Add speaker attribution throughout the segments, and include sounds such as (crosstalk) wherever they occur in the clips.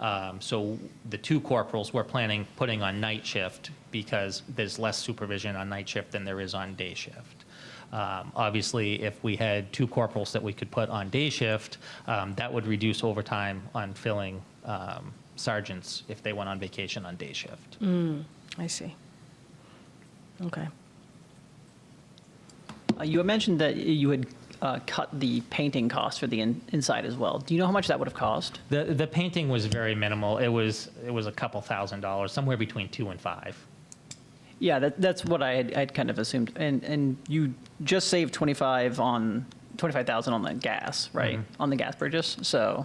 Speaker 1: Um, So the two corporals we're planning putting on night shift because there's less supervision on night shift than there is on day shift. Um, Obviously, if we had two corporals that we could put on day shift, um, that would reduce overtime on filling um, sergeants if they went on vacation on day shift.
Speaker 2: I see. Okay.
Speaker 3: Uh, You had mentioned that you had uh, cut the painting cost for the in- inside as well. Do you know how much that would have cost?
Speaker 1: The, the painting was very minimal. It was, it was a couple thousand dollars, somewhere between two and five.
Speaker 3: Yeah, that, that's what I had, I'd kind of assumed. And and you just saved twenty five on twenty five thousand on the gas, right? On the gas purchase. So,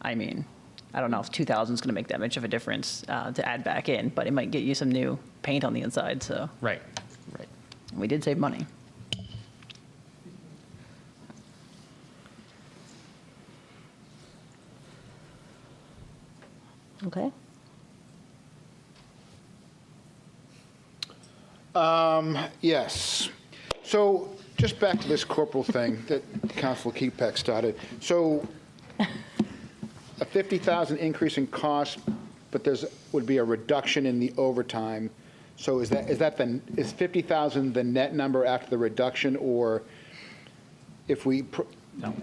Speaker 3: I mean, I don't know if two thousand is going to make that much of a difference uh, to add back in, but it might get you some new paint on the inside. So
Speaker 1: Right, right.
Speaker 3: we did save money.
Speaker 2: Okay.
Speaker 4: Yes. So just back to this corporal thing that Council Kepeck started. So a 50,000 increase in cost, but there's, would be a reduction in the overtime. So is that, is that the, is 50,000 the net number after the reduction, or if we? pr-
Speaker 1: No.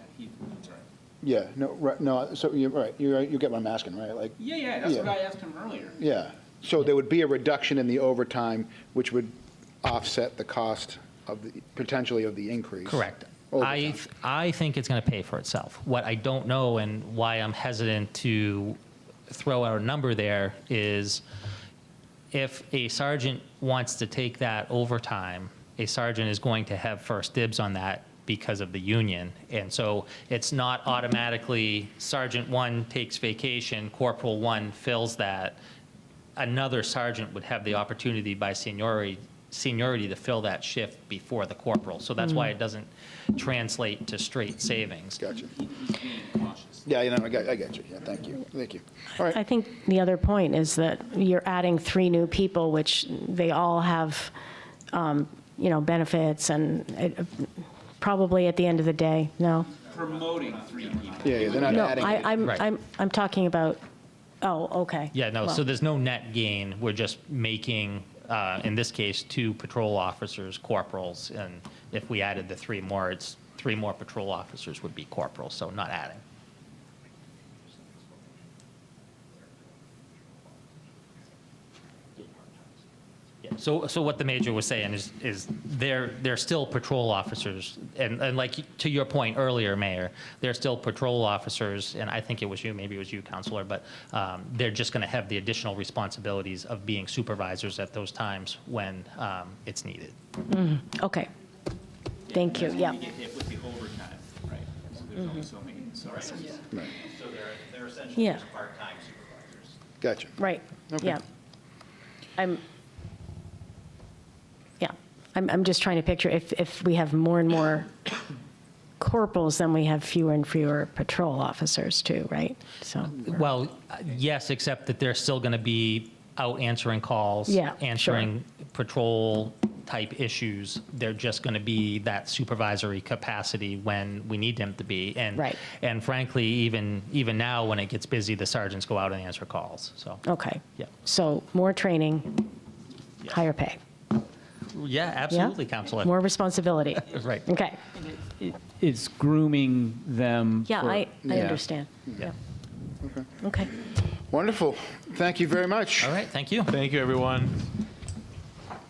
Speaker 4: Yeah, no, right, no, so you're right, you, you get what I'm asking, right? Like,
Speaker 5: Yeah, yeah, that's what
Speaker 4: Yeah.
Speaker 5: I asked him earlier.
Speaker 4: yeah. So there would be a reduction in the overtime, which would offset the cost of, the potentially of the increase.
Speaker 1: Correct. I,
Speaker 4: Overtime.
Speaker 1: th- I think it's going to pay for itself. What I don't know and why I'm hesitant to throw out a number there is if a sergeant wants to take that overtime, a sergeant is going to have first dibs on that because of the union. And so it's not automatically Sergeant one takes vacation, Corporal one fills that. Another sergeant would have the opportunity by seniority, seniority to fill that shift before the corporal. So that's why it doesn't translate to straight savings.
Speaker 4: Gotcha.
Speaker 5: He's being cautious.
Speaker 4: Yeah, you know, I got, I got you. Yeah, thank you, thank you. All
Speaker 2: I
Speaker 4: right,
Speaker 2: think the other point is that you're adding three new people, which they all have, um, you know, benefits and it- probably at the end of the day, no?
Speaker 5: Promoting three people.
Speaker 4: yeah, yeah, they're not
Speaker 2: No,
Speaker 4: adding.
Speaker 2: I,
Speaker 4: it.
Speaker 2: I'm,
Speaker 1: Right.
Speaker 2: I'm, I'm talking about, oh, okay.
Speaker 1: Yeah, no,
Speaker 2: Well,
Speaker 1: so there's no net gain. We're just making, uh, in this case, two patrol officers corporals. And if we added the three more, it's, three more patrol officers would be corporals, so not adding. Yeah, So, so what the major was saying is, is they're, they're still patrol officers, and, and like, to your point earlier, Mayor, they're still patrol officers, and I think it was you, maybe it was you, Counselor, but um, they're just going to have the additional responsibilities of being supervisors at those times when um, it's needed.
Speaker 2: Okay. Thank you,
Speaker 5: That's
Speaker 2: yeah.
Speaker 5: when get hit with the overtime, right? So there's only so many, sorry.
Speaker 6: So they're, they're essentially
Speaker 2: Yeah.
Speaker 6: just part-time supervisors.
Speaker 4: Gotcha.
Speaker 2: Right,
Speaker 4: Okay.
Speaker 2: yeah. I'm, yeah, I'm, I'm just trying to picture if, if we have more and more corporals, then we have fewer and fewer patrol officers too, right? So,
Speaker 1: Well, uh, yes, except that they're still going to be out answering calls.
Speaker 2: Yeah, sure.
Speaker 1: Answering patrol-type issues. They're just going to be that supervisory capacity when we need them to be. And-
Speaker 2: Right.
Speaker 1: And frankly, even, even now, when it gets busy, the sergeants go out and answer calls, so.
Speaker 2: okay.
Speaker 1: Yeah.
Speaker 2: So more training,
Speaker 1: Yes.
Speaker 2: higher pay.
Speaker 1: Yeah,
Speaker 2: Yeah?
Speaker 1: absolutely, Counselor.
Speaker 2: More responsibility.
Speaker 1: (laughs) Right.
Speaker 2: Okay,
Speaker 7: It's grooming them.
Speaker 2: yeah,
Speaker 7: for-
Speaker 2: I, I
Speaker 4: Yeah.
Speaker 2: understand.
Speaker 1: Yeah.
Speaker 2: Okay.
Speaker 4: Wonderful, thank you very much.
Speaker 5: Uh,
Speaker 1: All right, thank you.
Speaker 8: Thank you, everyone.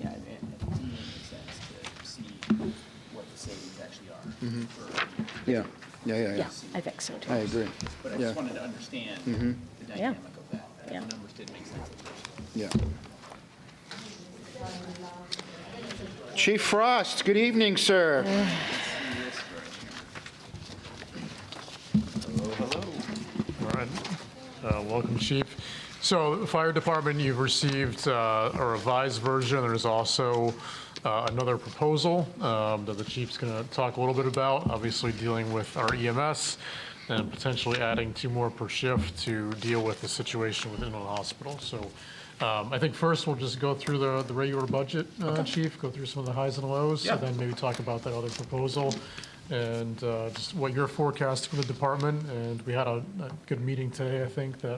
Speaker 5: Yeah, it it makes sense to see what the savings actually
Speaker 4: Mm-hmm.
Speaker 5: are. for-
Speaker 4: Yeah, yeah, yeah, yeah.
Speaker 2: Yeah, I think so
Speaker 4: I
Speaker 2: too.
Speaker 4: agree.
Speaker 5: But
Speaker 4: Yeah,
Speaker 5: I
Speaker 4: Mm-hmm.
Speaker 5: just wanted to understand the dynamic of that. that
Speaker 2: Yeah.
Speaker 5: The numbers did make sense.
Speaker 4: yeah. Chief Frost, good evening, sir.
Speaker 9: All right. Uh, Welcome, Chief. So the fire department, you've received uh, a revised version. There's also uh, another proposal um, that the chief's going to talk a little bit about, obviously dealing with our EMS and potentially adding two more per shift to deal with the situation within the hospital. So um, I think first we'll just go through the, the regular budget, uh, Chief, go through some of the highs and lows.
Speaker 8: Yeah.
Speaker 9: And then maybe talk about that other proposal and uh, just what your forecast for the department. And we had a a good meeting today, I think, that